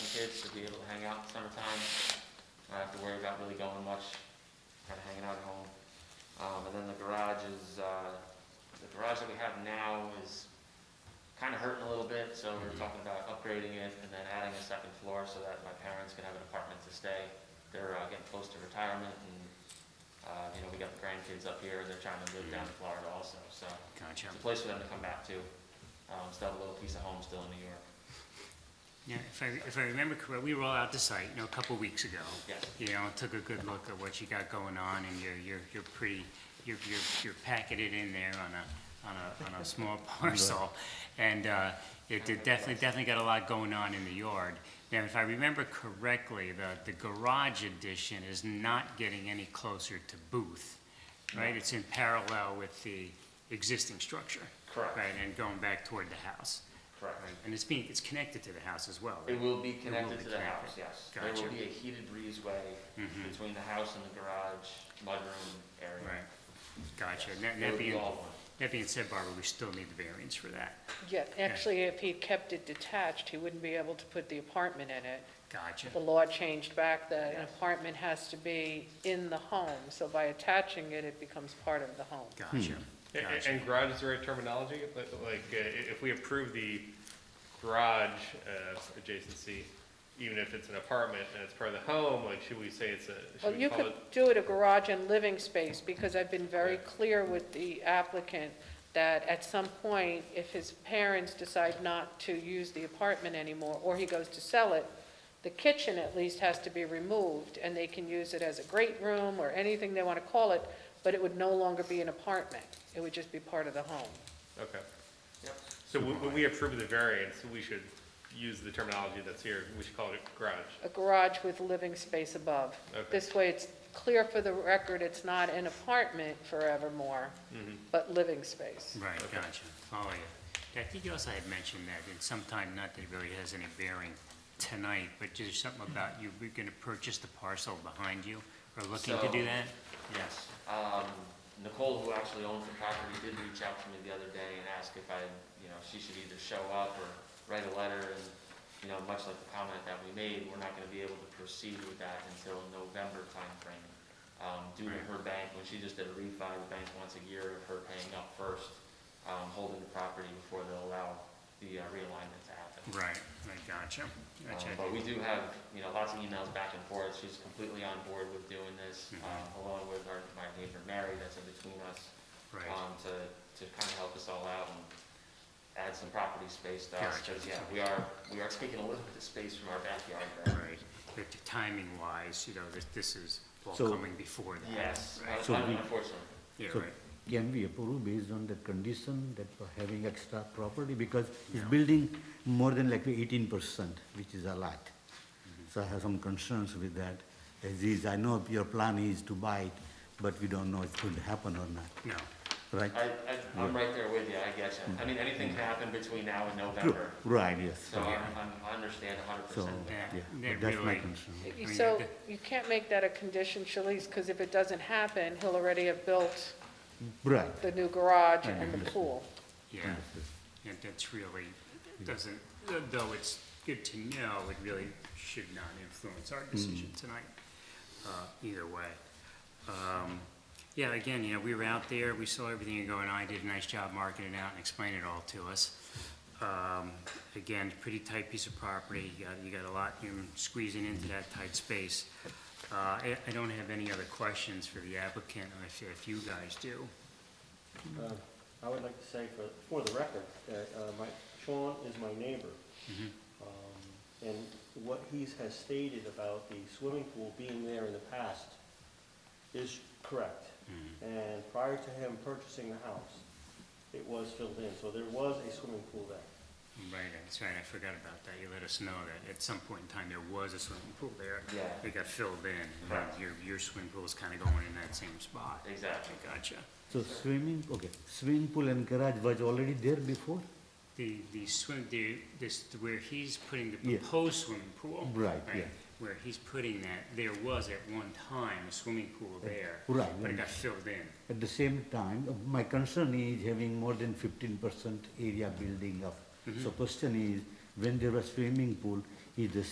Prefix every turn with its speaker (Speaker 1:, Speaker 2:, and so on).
Speaker 1: kids to be able to hang out in the summertime. Not have to worry about really going much, kind of hanging out at home. Um, and then the garage is, uh, the garage that we have now is kind of hurting a little bit, so we we're talking about upgrading it and then adding a second floor so that my parents can have an apartment to stay. They're uh, getting close to retirement and, uh, you know, we got the grandkids up here, they're trying to live down in Florida also, so.
Speaker 2: Gotcha.
Speaker 1: It's a place for them to come back to. Um, still have a little piece of home still in New York.
Speaker 2: Yeah, if I, if I remember correctly, we were all out to site, you know, a couple weeks ago.
Speaker 1: Yes.
Speaker 2: You know, took a good look at what you got going on, and you're, you're, you're pretty, you're, you're, you're packing it in there on a, on a, on a small parcel. And, uh, it did definitely, definitely got a lot going on in the yard. Now, if I remember correctly, the, the garage addition is not getting any closer to Booth, right? It's in parallel with the existing structure.
Speaker 1: Correct.
Speaker 2: Right, and going back toward the house.
Speaker 1: Correct.
Speaker 2: Right, And it's being, it's connected to the house as well,
Speaker 1: It
Speaker 2: right?
Speaker 1: will be
Speaker 2: will
Speaker 1: connected
Speaker 2: be
Speaker 1: to the house,
Speaker 2: connected.
Speaker 1: yes. There will
Speaker 2: Gotcha. Mm-hmm.
Speaker 1: be a heated breezeway between the house and the garage, mudroom
Speaker 2: Right,
Speaker 1: area.
Speaker 2: gotcha. And that-
Speaker 1: It
Speaker 2: That
Speaker 1: would be
Speaker 2: being,
Speaker 1: all one.
Speaker 2: that being said, Barbara, we still need the variance for that.
Speaker 3: Yeah, actually, if he kept it detached, he wouldn't be able to put the apartment in it.
Speaker 2: Gotcha,
Speaker 3: The law changed back that an
Speaker 1: Yes.
Speaker 3: apartment has to be in the home, so by attaching it, it becomes part of the home.
Speaker 2: gotcha,
Speaker 4: A- a-
Speaker 2: gotcha.
Speaker 4: And garage is the right terminology? Like, like, uh, i- if we approve the garage uh, adjacency, even if it's an apartment and it's part of the home, like, should we say it's a,
Speaker 3: Well,
Speaker 4: should we
Speaker 3: you
Speaker 4: call
Speaker 3: could
Speaker 4: it?
Speaker 3: do it a garage and living space, because I've been very
Speaker 4: Yeah.
Speaker 3: clear with the applicant that at some point, if his parents decide not to use the apartment anymore, or he goes to sell it, the kitchen at least has to be removed, and they can use it as a great room or anything they want to call it, but it would no longer be an apartment. It would just be part of the home.
Speaker 4: Okay.
Speaker 1: Yep.
Speaker 4: So when when we approve the variance, we should use the terminology that's here. We should call it garage.
Speaker 3: A garage with living space above.
Speaker 4: Okay.
Speaker 3: This way, it's clear for the record, it's not an apartment forevermore,
Speaker 4: Mm-hmm.
Speaker 3: but living space.
Speaker 2: Right, gotcha, follow you. I think you also had mentioned that, and sometime, not that it really has any bearing tonight, but there's something about you, we're gonna purchase the parcel behind you, or looking to
Speaker 1: So-
Speaker 2: do that?
Speaker 1: Yes. Um, Nicole, who actually owns the property, did reach out to me the other day and ask if I, you know, she should either show up or write a letter and, you know, much like the comment that we made, we're not gonna be able to proceed with that until November timeframe. Um, due to her bank, when she just did a refi, the bank once a year of her paying up first, um, holding the property before they'll allow the uh, realignment to happen.
Speaker 2: Right, right, gotcha,
Speaker 1: Um,
Speaker 2: gotcha.
Speaker 1: But we do have, you know, lots of emails back and forth, she's completely on board with doing this,
Speaker 2: Mm-hmm.
Speaker 1: um, along with our, my neighbor Mary that's in between us,
Speaker 2: Right,
Speaker 1: um, to, to kind of help us all out and add some property space to us,
Speaker 2: Gotcha.
Speaker 1: because, yeah, we are, we are taking a little bit of space from our backyard
Speaker 2: right.
Speaker 1: there.
Speaker 2: But timing wise, you know, this, this is all
Speaker 5: So-
Speaker 2: coming before that.
Speaker 1: Yes, Uh,
Speaker 2: right?
Speaker 1: un-
Speaker 5: So we-
Speaker 1: unfortunately,
Speaker 2: Yeah,
Speaker 5: So
Speaker 2: right.
Speaker 5: can we approve based on that condition that we're having extra property? Because it's building more than like eighteen percent, which is a lot. So I have some concerns with that. As is, I know your plan is to buy it, but we don't know it could happen or not,
Speaker 2: No,
Speaker 5: right?
Speaker 1: I, I, I'm right there with you, I get you, I mean, anything can happen between now and
Speaker 5: True,
Speaker 1: November,
Speaker 5: right, yes.
Speaker 1: so I, I'm- I understand a hundred
Speaker 5: So,
Speaker 1: percent.
Speaker 2: Yeah,
Speaker 5: yeah,
Speaker 2: that
Speaker 5: but that's my
Speaker 2: really-
Speaker 5: concern.
Speaker 2: mean, that-
Speaker 3: So you can't make that a condition, Shalice, because if it doesn't happen, he'll already have built
Speaker 5: Right,
Speaker 3: the new garage
Speaker 5: I
Speaker 3: and the
Speaker 5: understand.
Speaker 3: pool.
Speaker 2: yeah.
Speaker 5: understood.
Speaker 2: Yeah, that's really, it doesn't, though it's good to know, it really should not influence our decision tonight, uh, either way. Um, Yeah, again, you know, we were out there, we saw everything going on, I did a nice job marketing it out and explaining it all to us. Um, Again, pretty tight piece of property, you got, you got a lot, you're squeezing into that tight space. Uh, I, I don't have any other questions for the applicant, or if, if you guys do.
Speaker 6: Uh, I would like to say for, for the record, that uh, my, Sean is my neighbor. Um, And what he has stated about the swimming pool being there in the past is correct. And prior to him purchasing the house, it was filled in, so there was a swimming pool there.
Speaker 2: Right, that's right, I forgot about that. You let us know that at some point in time, there was a swimming pool there.
Speaker 1: Yeah.
Speaker 2: It got filled in, and
Speaker 1: Right.
Speaker 2: your, your swimming pool's kind of going in that same spot.
Speaker 1: Exactly.
Speaker 2: Gotcha.
Speaker 5: So swimming, okay, swimming pool and garage was already there before?
Speaker 2: The, the swim, the, this, where he's putting the
Speaker 5: Yeah.
Speaker 2: proposed swimming pool.
Speaker 5: Right, yeah.
Speaker 2: Where he's putting that, there was at one time a swimming pool there.
Speaker 5: Right,
Speaker 2: But it
Speaker 5: right.
Speaker 2: got filled in.
Speaker 5: At the same time, uh, my concern is having more than fifteen percent area building up. So question is, when there was swimming pool, is the